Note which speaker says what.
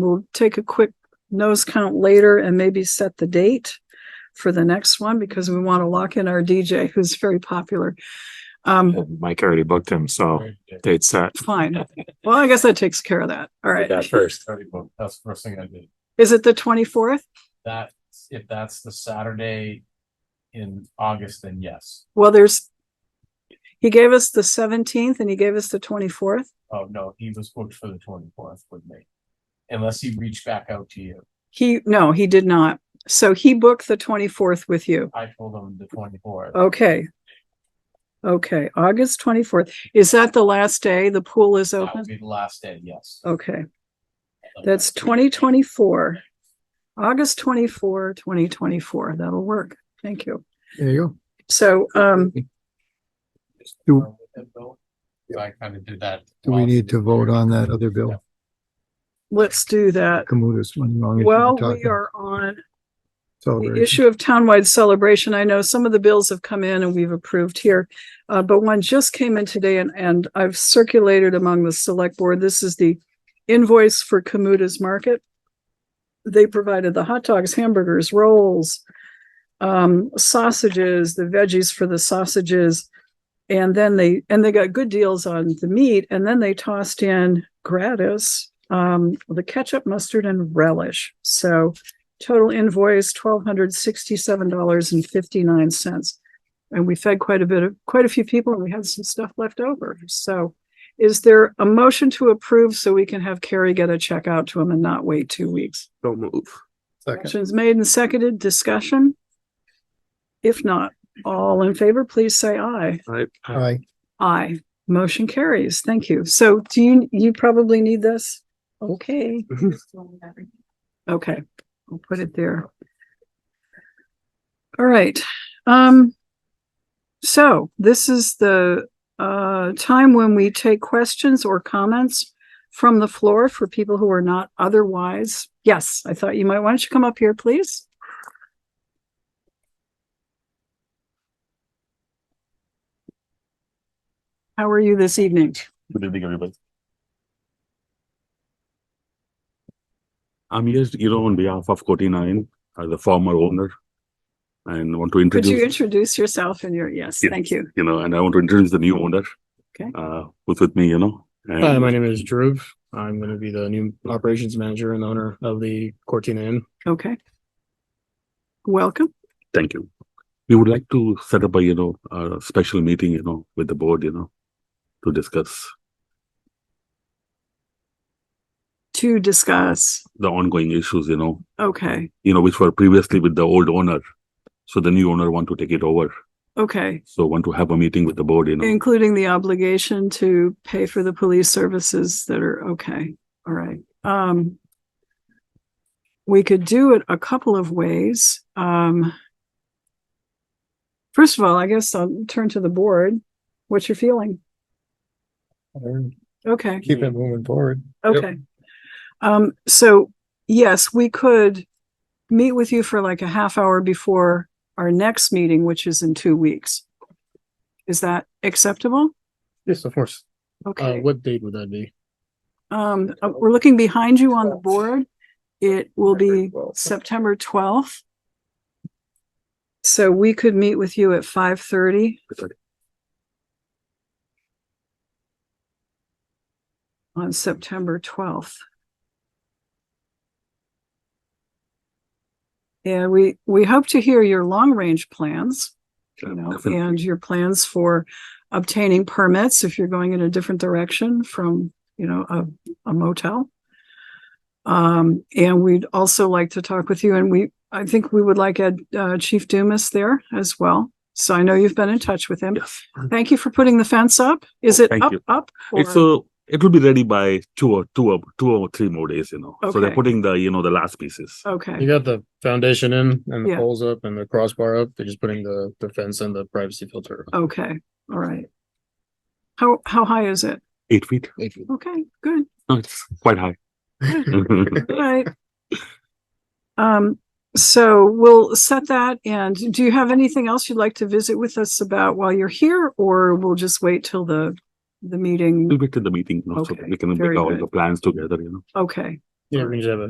Speaker 1: We'll take a quick nose count later and maybe set the date for the next one because we want to lock in our DJ who's very popular. Um,
Speaker 2: And Mike already booked him,
Speaker 3: Oh.
Speaker 2: so date set.
Speaker 1: fine. Well, I guess that takes care of that. All right.
Speaker 4: That first.
Speaker 5: That's the first thing I did.
Speaker 1: Is it the twenty-fourth?
Speaker 5: That, if that's the Saturday in August, then yes.
Speaker 1: Well, there's he gave us the seventeenth and he gave us the twenty-fourth.
Speaker 5: Oh, no, he was booked for the twenty-fourth with me. Unless he reached back out to you.
Speaker 1: He, no, he did not. So he booked the twenty-fourth with you.
Speaker 5: I told him the twenty-fourth.
Speaker 4: Oh,
Speaker 1: Okay. Okay, August twenty-fourth. Is that the last day? The pool is
Speaker 5: That
Speaker 1: open?
Speaker 5: would be the last day, yes.
Speaker 4: Oh,
Speaker 1: Okay. That's twenty twenty-four. August 24, 2024. twenty twenty-four. That'll work. Thank you.
Speaker 4: There you
Speaker 1: So, um,
Speaker 4: Do,
Speaker 5: So I kind of did that.
Speaker 4: do we need to vote on that other bill?
Speaker 1: let's do that.
Speaker 4: Kamuta's one wrong.
Speaker 1: Well, we are on the
Speaker 4: Celebration.
Speaker 1: issue of townwide celebration. I know some of the bills have come in and we've approved here. Uh, but one just came in today and, and I've circulated among the select board. This is the invoice for Kamuta's Market. They provided the hot dogs, hamburgers, rolls, um, sausages, the veggies for the sausages. And then they, and they got good deals on the meat and then they tossed in gratis, um, the ketchup, mustard and relish. So total invoice twelve hundred sixty-seven dollars and fifty-nine cents. And we fed quite a bit of, quite a few people and we had some stuff left over. So is there a motion to approve so we can have Carrie get a check out to him and not wait two weeks?
Speaker 6: Don't move.
Speaker 4: Second.
Speaker 1: Motion's made and seconded, discussion? If not, all in favor, please say aye.
Speaker 6: I,
Speaker 7: Uh,
Speaker 4: Aye.
Speaker 1: Aye. Motion carries. Thank you. So do you, you probably need this? Okay. Okay, I'll put it there. All right, um. So this is the uh time when we take questions or comments from the floor for people who are not otherwise. Yes, I thought you might, why don't you come up here, please? How are you this evening?
Speaker 3: Good evening, everybody. I'm here, you know, on behalf of Coti Nine, as the former owner. And want to
Speaker 1: Could you
Speaker 3: introduce,
Speaker 1: introduce yourself and your, yes,
Speaker 3: Yes.
Speaker 1: thank you.
Speaker 3: you know, and I want to introduce the new owner.
Speaker 1: Okay.
Speaker 3: Uh, who's with me, you know.
Speaker 7: Hi,
Speaker 3: and-
Speaker 7: my name is Dhruv. I'm going to be the new operations manager and owner of the Cortina Inn.
Speaker 1: Okay. Welcome.
Speaker 3: Thank you. We would like to set up a, you know, a special meeting, you know, with the board, you know, to discuss
Speaker 1: To discuss,
Speaker 3: the ongoing issues, you know,
Speaker 1: okay,
Speaker 3: you know, which were previously with the old owner. So the new owner want to take it over.
Speaker 1: okay,
Speaker 3: So want to have a meeting with the board, you know.
Speaker 1: including the obligation to pay for the police services that are, okay, all right. Um, we could do it a couple of ways. Um, first of all, I guess I'll turn to the board. What's your feeling? Okay.
Speaker 4: Keep it moving forward. Yep.
Speaker 1: Okay. Um, so yes, we could meet with you for like a half hour before our next meeting, which is in two weeks. Is that acceptable?
Speaker 7: Yes, of course. Uh,
Speaker 1: Okay,
Speaker 7: what date would that be?
Speaker 1: um, uh, we're looking behind you on the board. It will be September twelfth. So we could meet with you at five thirty. On September twelfth. And we, we hope to hear your long-range plans, you know,
Speaker 3: Definitely.
Speaker 1: and your plans for obtaining permits if you're going in a different direction from, you know, a, a motel. Um, and we'd also like to talk with you and we, I think we would like Ed, uh, Chief Dumas there as well. So I know you've been in touch with him.
Speaker 3: Yes.
Speaker 1: Thank you for putting the fence up. Is
Speaker 3: Oh,
Speaker 1: it
Speaker 3: thank
Speaker 1: up,
Speaker 3: you.
Speaker 1: up?
Speaker 3: It's
Speaker 1: or-
Speaker 3: a, it will be ready by two or two or two or three more days, you know. So they're
Speaker 1: Okay. Oh.
Speaker 3: putting the, you know, the last pieces.
Speaker 1: Okay,
Speaker 7: You got the foundation in and the
Speaker 1: Yeah.
Speaker 7: poles up and the crossbar up. They're just putting the, the fence and the privacy filter.
Speaker 1: okay, all right. How, how high is it?
Speaker 3: Eight feet.
Speaker 1: Okay, good.
Speaker 3: No, it's quite high.
Speaker 1: Right. Um, so we'll set that. And do you have anything else you'd like to visit with us about while you're here? Or we'll just wait till the, the
Speaker 3: We'll
Speaker 1: meeting?
Speaker 3: Mm. wait till the meeting, you know, so
Speaker 1: Okay,
Speaker 3: that we can
Speaker 1: very
Speaker 3: make all
Speaker 1: good.
Speaker 3: the plans together, you know.
Speaker 1: Okay,
Speaker 5: Yeah, we're gonna have a